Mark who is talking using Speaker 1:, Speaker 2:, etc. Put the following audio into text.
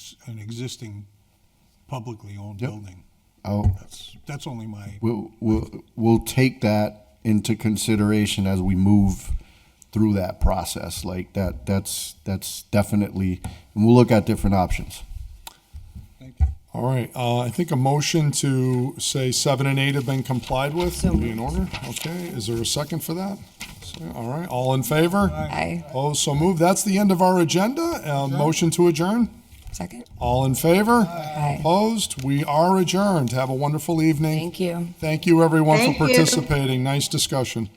Speaker 1: it's an existing publicly owned
Speaker 2: Yep.
Speaker 1: building.
Speaker 2: I'll,
Speaker 1: That's, that's only my,
Speaker 2: we'll, we'll, we'll take that into consideration as we move through that process. Like that, that's, that's definitely, and we'll look at different options.
Speaker 1: thank you.
Speaker 3: All right, uh, I think a motion to say seven and eight have been complied with would be in order. Okay, is there a second for that? So, All right, all in favor?
Speaker 4: Aye.
Speaker 3: Oh, so moved. That's the end of our agenda. Uh, motion to adjourn?
Speaker 4: Second?
Speaker 3: All in favor?
Speaker 4: Aye.
Speaker 3: Opposed? We are adjourned. Have a wonderful evening.
Speaker 4: Thank you.
Speaker 3: Thank you, everyone, for
Speaker 5: Thank you.
Speaker 3: participating. Nice discussion.